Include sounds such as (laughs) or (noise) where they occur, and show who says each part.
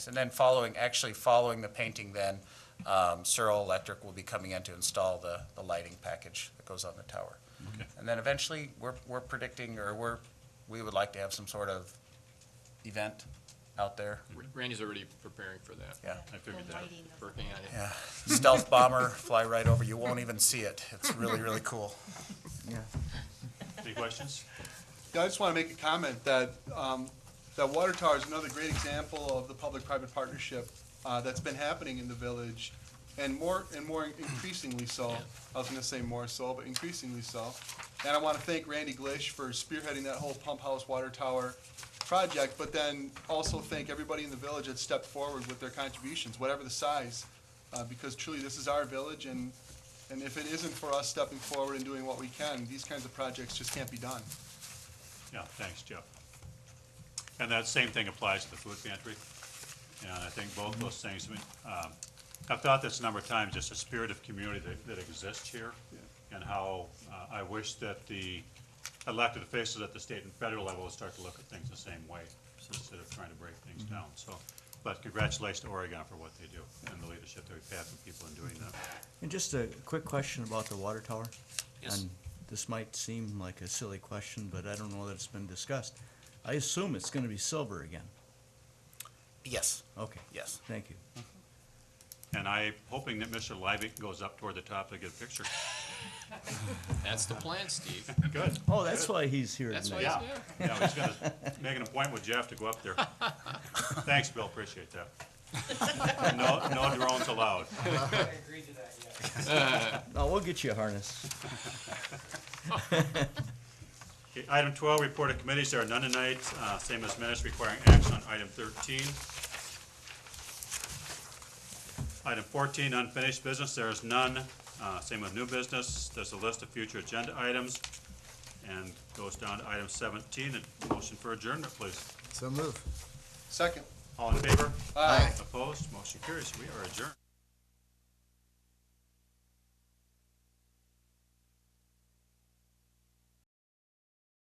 Speaker 1: And then following, actually following the painting then, um, Searle Electric will be coming in to install the, the lighting package that goes on the tower.
Speaker 2: Okay.
Speaker 1: And then eventually, we're, we're predicting, or we're, we would like to have some sort of event out there.
Speaker 3: Randy's already preparing for that.
Speaker 1: Yeah,
Speaker 2: I figured
Speaker 4: The
Speaker 2: that.
Speaker 4: lighting of
Speaker 3: Working on it.
Speaker 1: yeah. Stealth bomber, fly right over, you won't even see it. It's really, really cool.
Speaker 2: Any questions?
Speaker 5: Yeah, I just want to make a comment that, um, that water tower is another great example of the public-private partnership, uh, that's been happening in the village, and more, and more increasingly so. I was gonna say more so, but increasingly so. And I want to thank Randy Glish for spearheading that whole pump house water tower project, but then also thank everybody in the village that stepped forward with their contributions, whatever the size, uh, because truly, this is our village, and, and if it isn't for us stepping forward and doing what we can, these kinds of projects just can't be done.
Speaker 2: Yeah, thanks, Jeff. And that same thing applies to the food pantry. And I think both those things, I mean, um, I've thought this a number of times, just the spirit of community that, that exists here and how uh, I wish that the elected officials at the state and federal level would start to look at things the same way instead of trying to break things
Speaker 5: Mm-hmm.
Speaker 2: down. So, but congratulations to Oregon for what they do and the leadership that we've had from people in doing that.
Speaker 6: And just a quick question about the water tower. And this might seem like a silly question, but I don't know that it's been discussed. I assume it's gonna be silver again.
Speaker 1: Yes,
Speaker 6: Okay,
Speaker 1: yes.
Speaker 6: thank you.
Speaker 2: And I'm hoping that Mr. Levick goes up toward the top to get a
Speaker 5: (laughs)
Speaker 2: picture.
Speaker 3: That's the plan, Steve.
Speaker 2: Good.
Speaker 6: Oh, that's why he's here
Speaker 3: That's why
Speaker 6: tonight.
Speaker 3: he's
Speaker 2: Yeah,
Speaker 3: there.
Speaker 2: yeah, he's gonna make an appointment with Jeff to go up there. Thanks, Bill, appreciate that. No, no drones allowed.
Speaker 6: No, we'll get you a harness.
Speaker 2: Okay, Item twelve, report of committees, there are none tonight, uh, same as minutes requiring action on item thirteen. Item fourteen, unfinished business, there is none, uh, same with new business, there's a list of future agenda items, and goes down to item seventeen, a motion for adjournment, please.
Speaker 7: So move.
Speaker 5: Second.
Speaker 2: All in favor?
Speaker 5: Aye.
Speaker 2: Opposed, motion carries, we are adjourned.